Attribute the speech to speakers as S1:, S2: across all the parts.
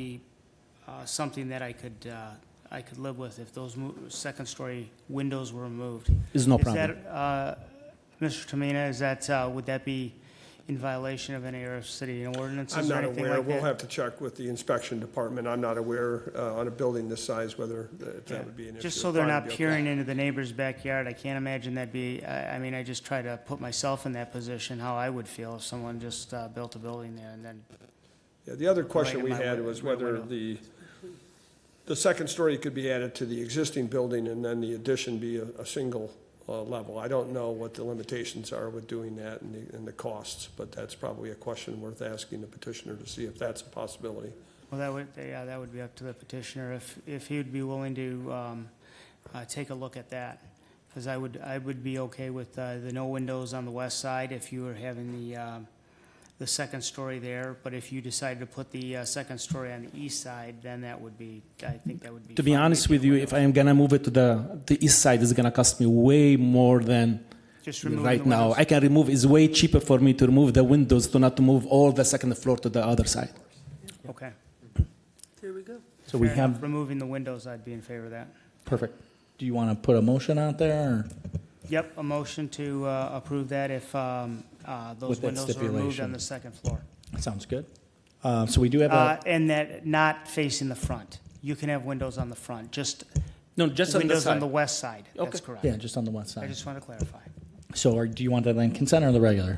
S1: be uh, something that I could, uh, I could live with if those mo- second-story windows were removed.
S2: Is no
S1: Is
S2: problem.
S1: that, uh, Mr. Tamina, is that, uh, would that be in violation of any of city
S3: I'm
S1: ordinances or
S3: not
S1: anything
S3: aware.
S1: like
S3: We'll
S1: that?
S3: have to check with the inspection department. I'm not aware uh, on a building this size whether uh, if that would be an issue.
S1: Just so they're not
S3: Probably be okay.
S1: peering into the neighbor's backyard, I can't imagine that'd be, I, I mean, I just try to put myself in that position, how I would feel if someone just uh, built a building there and then,
S3: Yeah, the other
S1: Like
S3: question
S1: in
S3: we
S1: my
S3: had
S1: win-
S3: was
S1: my
S3: whether
S1: window.
S3: the, the second story could be added to the existing building and then the addition be a, a single uh, level. I don't know what the limitations are with doing that and the, and the costs, but that's probably a question worth asking the petitioner to see if that's a possibility.
S1: well, that would, yeah, that would be up to the petitioner if, if he would be willing to um, uh, take a look at that. Because I would, I would be okay with uh, the no windows on the west side if you were having the, um, the second story there. But if you decided to put the uh, second story on the east side, then that would be, I think that would be.
S2: To be
S1: fine.
S2: honest with you, if I am gonna move it to the, the east side, it's gonna cost me way more than
S1: Just remove the
S2: right now.
S1: windows.
S2: I can remove, it's way cheaper for me to remove the windows to not to move all the second floor to the other side.
S1: Okay.
S4: There we go.
S5: So we
S1: Fair enough.
S5: have,
S1: Removing the windows, I'd be in favor of that.
S2: Perfect.
S5: do you want to put a motion out there? or-
S1: Yep, a motion to uh, approve that if um, uh, those
S5: With that
S1: windows are removed on
S5: stipulation.
S1: the second floor.
S5: Sounds good. Uh, So we do have
S1: Uh,
S5: a,
S1: And that not facing the front. You can have windows on the front, just
S2: No, just on the
S1: windows on
S2: side.
S1: the west side. That's
S2: Okay.
S1: correct.
S5: yeah, just on the one
S1: I
S5: side.
S1: just want to clarify.
S5: So are- do you want that on consent or the regular?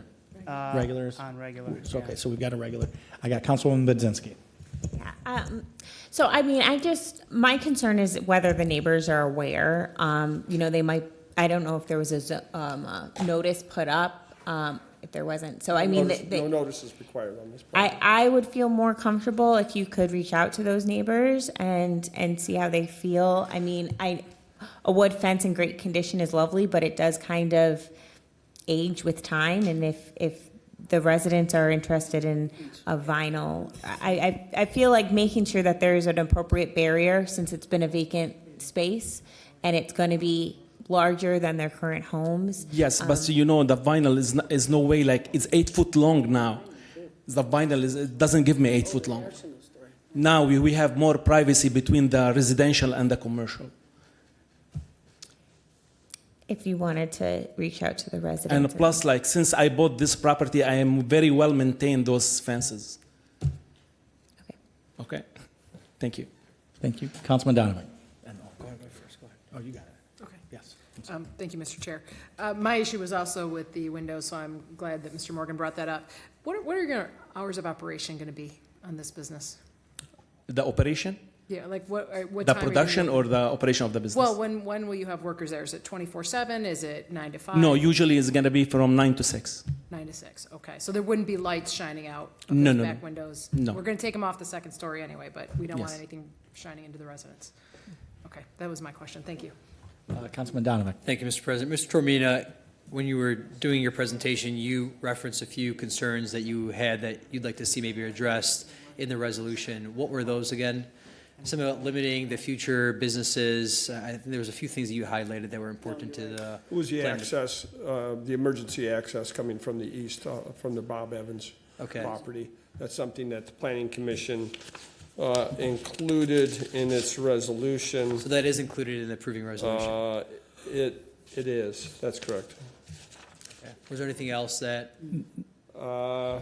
S1: Uh,
S5: Regulars?
S1: On regular.
S5: So,
S1: yeah.
S5: Okay, so we've got a regular. I got Councilwoman Budzinski.
S6: Yeah, um, So, I mean, I just, my concern is whether the neighbors are aware. Um, You know, they might, I don't know if there was a zo- um, a notice put up, um, if there wasn't. So, I mean,
S3: Notice-
S6: they-
S3: No
S6: they-
S3: notice is required on this.
S6: I, I would feel more comfortable if you could reach out to those neighbors and, and see how they feel. I mean, I, a wood fence in great condition is lovely, but it does kind of age with time. And if, if the residents are interested in a vinyl, I, I, I feel like making sure that there is an appropriate barrier since it's been a vacant space and it's going to be larger than their current homes.
S2: Yes, but you know, the vinyl is, n- is no way like, it's eight foot long now. The vinyl is, it doesn't give me eight foot long. Now we, we have more privacy between the residential and the commercial.
S6: If you wanted to reach out to the residents.
S2: And plus, like, since I bought this property, I am very well maintained those fences.
S6: Okay.
S2: Okay? Thank you.
S5: Thank you. Councilman Donovan. Oh, you got it.
S4: Okay.
S5: Yes.
S4: Um, Thank you, Mr. Chair. Uh, My issue was also with the windows, so I'm glad that Mr. Morgan brought that up. What are- what are your hours of operation going to be on this business?
S2: The operation,
S4: Yeah, like what, uh, what
S2: the
S4: time? are you gonna-
S2: production, or the operation of the business?
S4: Well, when, when will you have workers there? Is it 24/7? Is it 9 to 5?
S2: no, usually it's gonna be from nine to six.
S4: 9 to 6, okay. So there wouldn't be lights shining out of
S2: No,
S4: those
S2: no,
S4: back
S2: no.
S4: windows?
S2: No.
S4: We're going to take them off the second story anyway, but we don't want
S2: Yes.
S4: anything shining into the residence. Okay, that was my question. Thank you.
S5: Uh, Councilman Donovan.
S7: Thank you, Mr. President. Mr. Tormina, when you were doing your presentation, you referenced a few concerns that you had that you'd like to see maybe addressed in the resolution. What were those again? Something about limiting the future businesses. I think there was a few things that you highlighted that were important to the.
S3: It was the
S7: plan.
S3: access, uh, the emergency access coming from the east, uh, from the Bob Evans
S7: Okay.
S3: property. That's something that the planning commission uh, included in its resolution.
S7: So that is included in the approving resolution.
S3: Uh, It, it is, that's correct.
S7: Okay. Was there anything else that,
S3: Uh,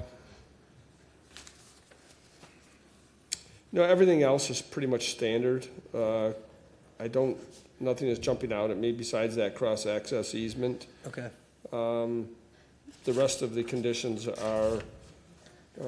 S3: No, everything else is pretty much standard. Uh, I don't, nothing is jumping out at me besides that cross-access easement.
S7: okay,
S3: The rest of the conditions are uh,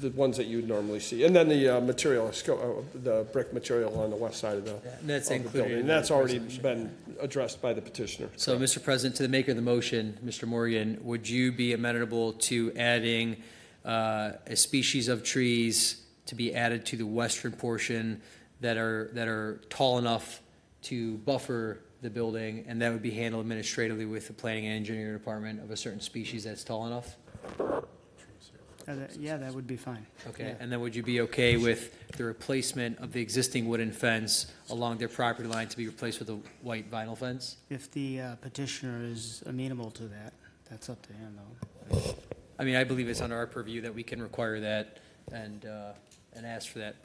S3: the ones that you'd normally see. And then the uh, material, sco- uh, the brick material on the west side of the
S7: and that's
S3: of the building.
S7: included in
S3: And
S7: the
S3: that's already
S7: resolution?
S3: been addressed by the petitioner.
S7: So, Mr. President, to the maker of the motion, Mr. Morgan, would you be amenable to adding uh, a species of trees to be added to the western portion that are, that are tall enough to buffer the building, and that would be handled administratively with the planning and engineering department of a certain species that's tall enough?
S1: Uh, that- Yeah, that would be fine.
S7: Okay, and then would you be okay with the replacement of the existing wooden fence along their property line to be replaced with a white vinyl fence?
S1: If the uh, petitioner is amenable to that, that's up to him, though.
S7: I mean, I believe it's under our purview that we can require that, and uh, and ask for that.